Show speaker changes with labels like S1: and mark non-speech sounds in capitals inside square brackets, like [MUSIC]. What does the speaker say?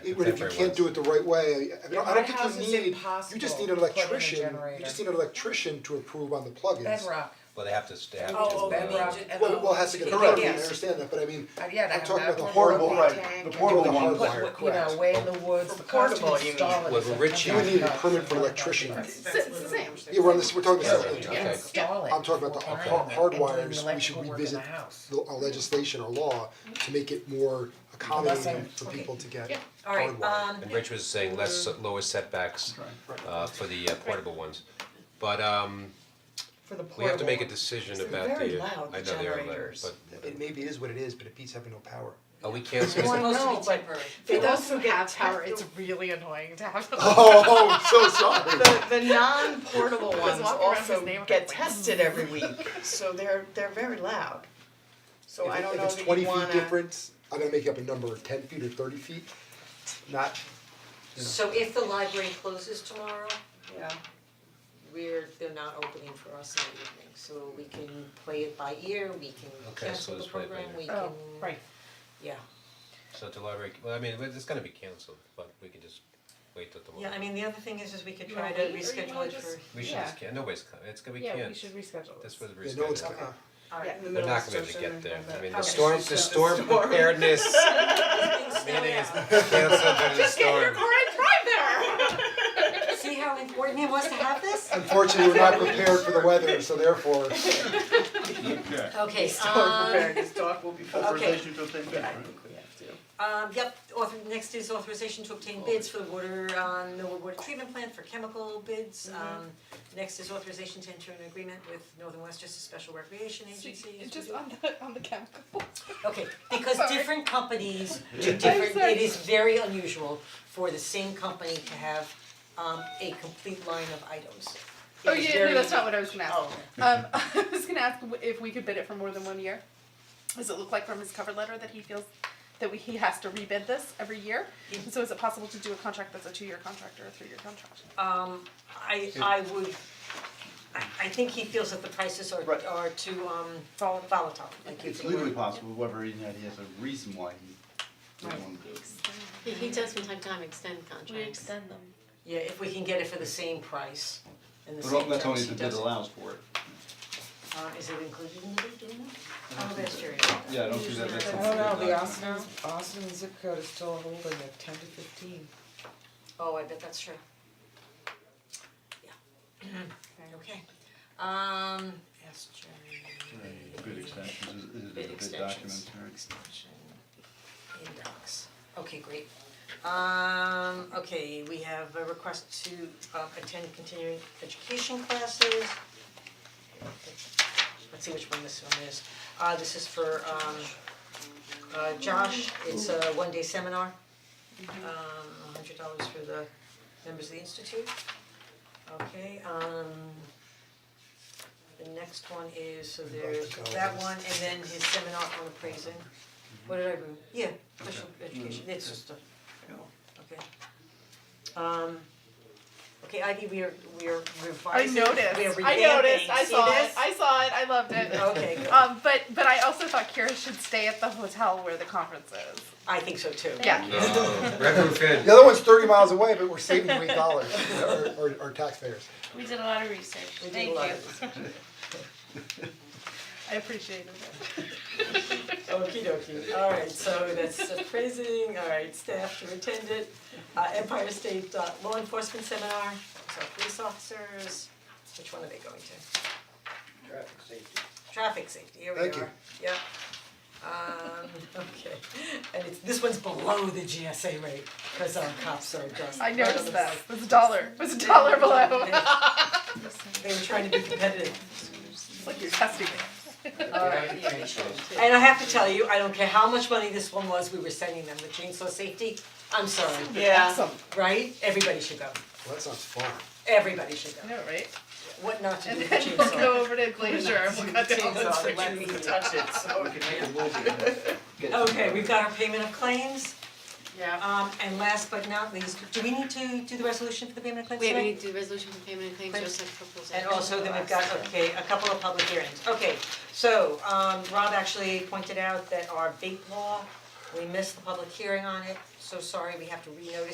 S1: even if you
S2: Contemporary
S1: can't do it the right way, I mean, I
S3: my
S1: don't think
S3: house
S1: you
S3: is
S1: need, you just
S3: impossible
S1: need an
S3: to plug in a
S1: electrician, you
S3: generator.
S1: just need an electrician to approve on the plugins.
S3: Bedrock.
S2: Well, they have to, they have to.
S3: Oh, oh,
S2: uh,
S3: bedrock.
S1: Well, we'll have to get a
S3: Correct.
S1: permit, I
S3: Yes.
S1: understand that, but I mean,
S3: Uh, yeah, they
S1: I'm
S3: have
S1: talking
S3: that
S1: about the
S3: one
S1: horrible,
S3: where
S1: right,
S3: they tank
S1: the
S3: and
S1: portable
S3: put-
S1: one,
S3: put,
S1: wire,
S3: You know,
S1: correct.
S3: way in the woods, the cost to
S4: portable, you mean.
S3: install it
S2: Well,
S3: is
S2: we're
S3: a
S2: rich
S1: You would
S3: fucking
S1: need a
S3: nuts.
S1: permit for electrician.
S5: It's the same.
S1: Yeah, we're on this, we're talking about
S2: Yeah,
S1: this,
S3: You can't install it.
S1: I'm talking about the
S3: full-time
S1: har- hard
S3: and doing the
S1: wires, we should
S3: electrical work in the
S1: revisit
S3: house.
S1: the our legislation or law to make it more accommodating
S3: I'm-
S1: for people to get
S4: All right,
S1: hardwired.
S4: um,
S2: And Rich was saying less, lower setbacks uh, for the uh, portable ones. But um,
S3: For the portable.
S2: we have to make a decision
S3: They're
S2: about
S3: very
S2: the, uh,
S3: loud,
S2: I
S3: the
S2: know they are loud,
S3: generators.
S2: but, uh,
S1: It maybe is what it is, but it beats having no power.
S2: are we canceling?
S3: Well, I know, but
S5: For
S3: They
S5: those
S3: also
S5: who
S3: get
S5: have power, it's really annoying to have. them.
S1: [LAUGHS] Oh, I'm so sorry.
S4: the, the non-portable ones
S5: walking around his
S4: also
S5: neighborhood
S4: get
S5: like-
S4: tested every week, so they're, they're very loud. [LAUGHS] So I don't know
S1: If it's
S4: that you
S1: twenty feet
S4: wanna-
S1: difference, I'm gonna make up a number, ten feet or thirty feet, not,
S6: So if the library closes tomorrow,
S4: Yeah,
S6: we're, they're not opening for us in the evening, so we can play it by ear, we can
S2: Okay, so
S6: cancel the
S2: let's play it by
S6: program,
S2: ear.
S6: we can,
S5: Oh, right.
S6: yeah.
S2: So to library, well, I mean, it's gonna be canceled, but we can just wait till tomorrow.
S6: I mean, the other thing is, is we could
S5: try to reschedule it
S6: [LAUGHS]
S5: for-
S2: We should just, can nobody's, co- it's, gonna- we can't.
S5: Yeah, we should reschedule
S2: This
S5: this.
S2: was rescheduled.
S1: yeah, no one's, uh,
S4: yeah, in the
S2: We're
S4: middle of
S2: not
S4: the
S2: gonna be
S4: session
S2: get
S4: and
S2: there,
S4: have
S2: I
S4: that-
S2: mean, the
S4: Okay.
S2: storm, the
S4: [LAUGHS]
S2: storm preparedness
S5: [LAUGHS]
S2: meeting is canceled due to the storm.
S6: See how important it was to have
S5: [LAUGHS]
S6: this?
S1: unfortunately, we're not prepared for the weather, so therefore,
S6: Okay,
S4: Don't
S6: um,
S4: prepare, [LAUGHS] this dog will be full.
S6: Authorization
S7: to obtain
S4: Yeah, I think we have to.
S6: Um, yep, author, next is authorization to obtain bids for the water, um, Millwood Water Treatment Plant for chemical bids.
S5: Mm-hmm.
S6: Um, next is authorization to enter an agreement with Northern Westchester Special Recreation Agency. as we
S5: Just
S6: do.
S5: on the, Oh, on the [LAUGHS] chemical.
S6: Okay, because different
S7: [LAUGHS]
S6: companies do
S5: I'm
S6: different,
S5: sorry.
S6: it is very unusual for the same company to have, um, a complete line of items. It
S5: Oh
S6: is
S5: yeah, no,
S6: very-
S5: that's not what I was gonna ask.
S6: Oh, okay.
S5: Um, [LAUGHS] I was gonna ask w- if we could bid it for more than one year. Does it look like from his cover letter that he feels that we, he has to rebid this every year? And so is it possible to do a contract that's a two-year contract or a three-year contract?
S6: Um, I, I would, I, I think he feels that the prices are,
S7: Right.
S6: are too, um,
S5: Volatile.
S6: volatile, like
S7: It's legally possible, whoever in that has a reason why he doesn't want to do it.
S8: He, he does from time to time extend contracts.
S5: them.
S6: Yeah, if we can get it for the same price and the
S7: But
S6: same
S7: all- that's
S6: terms,
S7: only
S6: he
S7: if the bid
S6: does it.
S7: allows for it.
S6: Uh, is it included in the bid, do we know?
S7: I don't
S6: Oh, that's
S7: think
S6: true.
S7: that- Yeah, I don't think that that's
S3: I
S7: something.
S3: don't know,
S7: that-
S3: the Austin, Austin zip code is still holding at ten to fifteen.
S6: Oh, I bet that's true. Yeah. Okay, um, yes, Jerry,
S7: Right, Bid extensions, is- is it a
S6: bid
S7: bid
S6: extensions,
S7: document, right?
S6: extension, index, okay, great. Um, okay, we have a request to uh attend continuing education classes. Let's see which one this one is, uh, this is for um, uh, Josh, it's a one-day seminar. Um, a hundred dollars for the members of the institute. Okay, um, the next one is, so there's that one, and then his seminar on appraising. What did I bring? Yeah, special education, it's Mm-hmm. just a, okay. Um, okay, Ivy, we are, we are
S5: I
S6: revising, we are
S5: noticed,
S6: revamping, see this?
S5: I noticed, I saw it, I saw it, I loved it.
S6: Okay, good.
S5: Um, but, but I also thought Kira should stay at the hotel where the conference is.
S6: I think so too.
S5: Yeah.
S2: No, retrofit.
S1: the other one's thirty miles away, but we're saving eight dollars, or, or taxpayers.
S9: We did a lot of research,
S6: We did a
S9: thank you.
S6: lot of
S5: I appreciated it.
S6: Okie dokie, alright, so that's appraising, alright, staff to attend it, uh, Empire State uh, Law Enforcement Seminar, so police officers, which one are they going to?
S7: Traffic safety.
S6: Traffic safety, here we are,
S1: Thank you.
S6: yeah. Um, [LAUGHS] okay, and it's, this one's below the GSA rate, cause our cops are just.
S5: I
S6: right on
S5: noticed
S6: the-
S5: that, it was a dollar, it was a dollar
S6: [LAUGHS]
S5: below.
S6: They they were trying to be competitive.
S5: It's like you're testing me.
S6: Alright, And I have to tell you, I don't care how much money this one was, we were sending them the chainsaw safety, I'm sorry,
S4: Yeah,
S5: Awesome,
S6: right? Everybody should go,
S1: Well, that sounds fun.
S6: everybody should go.
S5: I know, right?
S6: What not to do with
S5: And then we'll
S6: chainsaw.
S5: go over to Glacier and we'll cut down the
S4: chainsaw,
S5: tree.
S4: it lets you touch it, so.
S6: Okay, we've got our payment of claims,
S4: Yeah.
S6: um, and last but not least, do we need to do the resolution for the payment of claims
S8: Wait, we
S6: tonight?
S8: need to do resolution for payment of claims,
S6: Claims.
S8: just like proposal.
S6: And also then we've got, okay, a couple of public hearings, okay, so, um, Rob actually pointed out that our vape law, we missed the public hearing on it, so sorry, we have to renotice